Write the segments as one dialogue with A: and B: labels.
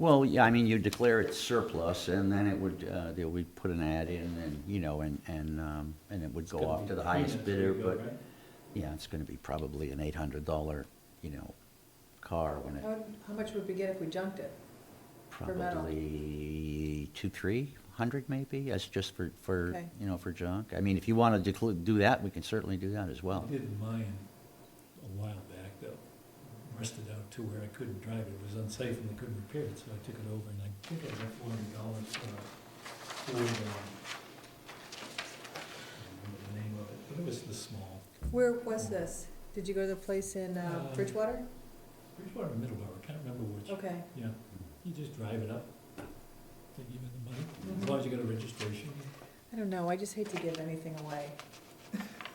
A: Well, yeah, I mean, you declare it surplus, and then it would, uh, they would put an ad in, and, you know, and, and, um, and it would go off to the highest bidder, but, yeah, it's gonna be probably an eight hundred dollar, you know, car when it,
B: How, how much would we get if we junked it? for metal?
A: probably two, three hundred maybe, as just for, for,
B: Okay.
A: you know, for junk. I mean, if you wanna declu- do that, we can certainly do that as
C: I
A: well.
C: did mine a while back though, rusted out to where I couldn't drive it, it was unsafe and they couldn't repair it, so I took it over and I think I got four hundred dollars for a Ford, um, I don't remember the name of it, but it was the small,
B: Where was this? Did you go to the place in uh,
C: Um,
B: Bridgewater?
C: Bridgewater, Middleborough, I can't remember which.
B: Okay,
C: Yeah, you just drive it up, they give you the money,
B: Mhm.
C: as long as you got a registration.
B: I don't know, I just hate to give anything away.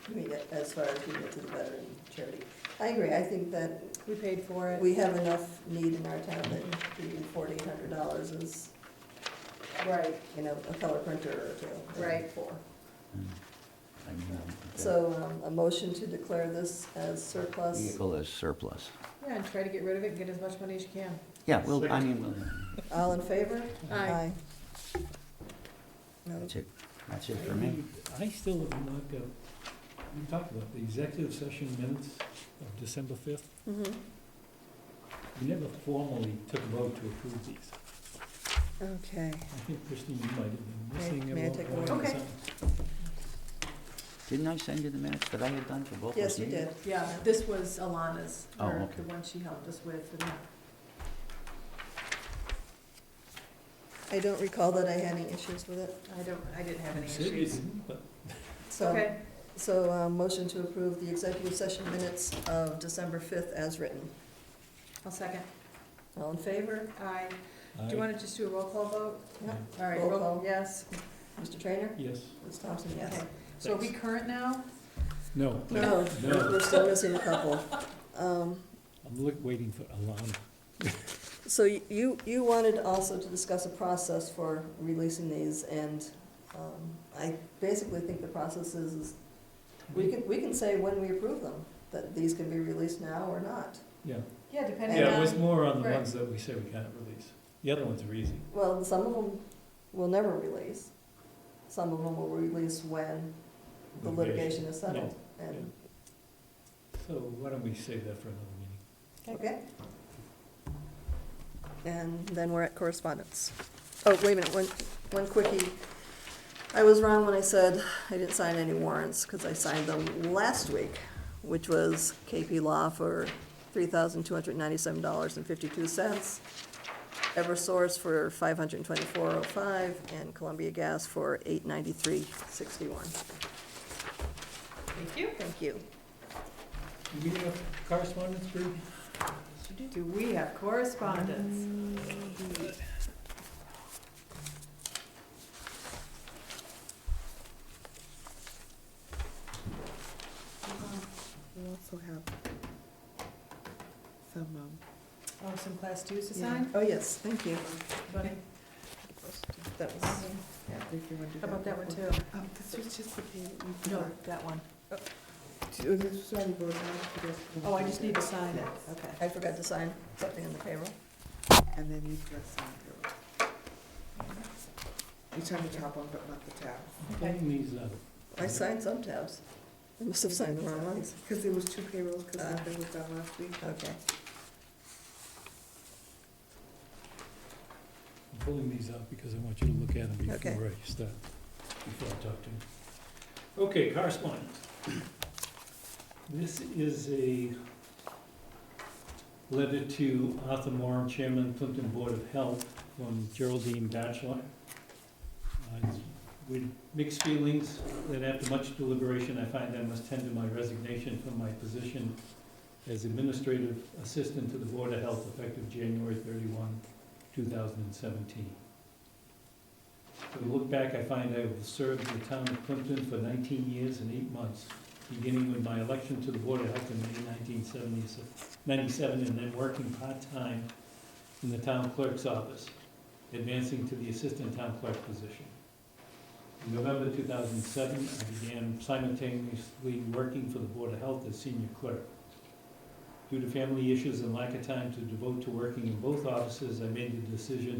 D: I mean, as far as we get to the veteran charity. I agree, I think that
B: We paid for it.
D: we have enough need in our town that even forty hundred dollars is,
B: Right,
D: you know, a color printer or two.
B: Right.
D: For.
A: I mean, uh, the
D: So, um, a motion to declare this as surplus.
A: Vehicle is surplus.
B: yeah, and try to get rid of it and get as much money as you can.
A: Yeah, well, I mean, we'll-
D: All in favor?
B: Aye.
D: No,
A: that's it, that's it for me.
C: I still have not got, we talked about the executive session minutes of December fifth.
B: Mm-hmm.
C: We never formally took a vote to approve these.
D: okay.
C: I think Christine, you might have been missing
D: May-
C: a
D: may I
C: vote.
D: take a
C: or
D: vote?
B: Okay.
C: something.
A: Didn't I send you the minutes that I had done for both those
D: Yes, you
A: meetings?
D: did.
B: Yeah, this was Alana's,
A: Oh,
B: or
A: okay.
B: the one she helped us with, and
D: I don't recall that I had any issues with it,
B: I don't, I didn't have any
C: You said you
B: issues.
C: didn't, but
D: so.
B: Okay,
D: So, uh, motion to approve the executive session minutes of December fifth as written.
B: I'll second.
D: All in favor?
B: Aye. Do you
C: I,
B: wanna just do a roll call vote?
D: Yeah.
B: All right,
D: Roll
B: roll,
D: call.
B: yes.
D: Mr. Trainer?
C: yes,
D: Ms. Thompson, yes.
B: Okay. So are we
C: Thanks.
B: current now?
C: no,
D: No,
C: No.
D: we're still missing a couple. Um,
C: I'm look, waiting for Alana.
D: So you, you wanted also to discuss a process for releasing these, and um, I basically think the process is, is we can, we can say when we approve them, that these can be released now or not.
C: Yeah,
B: Yeah, depending on.
C: yeah, it
D: um,
C: was more on the
B: right.
C: ones that we say we can't release. The other ones are easy.
D: Well, some of them will never release. Some of them will release when the litigation is settled. And,
C: So why don't we save that for another meeting?
D: okay? And then we're at correspondence. Oh, wait a minute, one, one quickie. I was wrong when I said I didn't sign any warrants, because I signed them last week, which was KP Law for three thousand two hundred ninety-seven dollars and fifty-two cents, Eversource for five hundred twenty-four oh five, and Columbia Gas for eight ninety-three sixty-one.
B: Thank you.
D: Thank you.
C: Do we have correspondence, Bree?
B: Do we have correspondence?
E: We also have some, um,
B: Oh, some class twos to
D: Yeah.
B: sign?
D: Oh, yes, thank you.
B: Buddy,
D: That was,
B: how
E: yeah, if you want to do that.
B: about that one
E: before-
B: too?
E: Um, this was just the payment we
B: No,
E: forgot.
B: that one.
E: to- This was already voted on. you guys can
B: Oh, I
E: do
B: just
E: that.
B: need to sign it, okay.
D: I forgot to sign something in the payroll.
E: And then you just sign it. You sign the top one, but not the tab.
C: Pulling these out.
D: I signed some tabs. I must have signed the wrong ones.
E: Because there was two payrolls, because
B: Uh.
D: Ah.
E: nothing was done last week.
D: Okay.
C: I'm pulling these out because I want you to look at them
D: Okay.
C: before I start, before I talk to them. Okay, correspondence. This is a letter to Arthur Moran, Chairman, Plimpton Board of Health, from Geraldine Batchelor. Uh, it's With mixed feelings, that after much deliberation, I find I must tender my resignation from my position as Administrative Assistant to the Board of Health effective January thirty-one, 2017. If we look back, I find I have served the town of Plimpton for 19 years and eight months, beginning with my election to the Board of Health in May 1997, and then working part-time in the town clerk's office, advancing to the assistant town clerk position. In November 2007, I began simultaneously working for the Board of Health as senior clerk. Due to family issues and lack of time to devote to working in both offices, I made the decision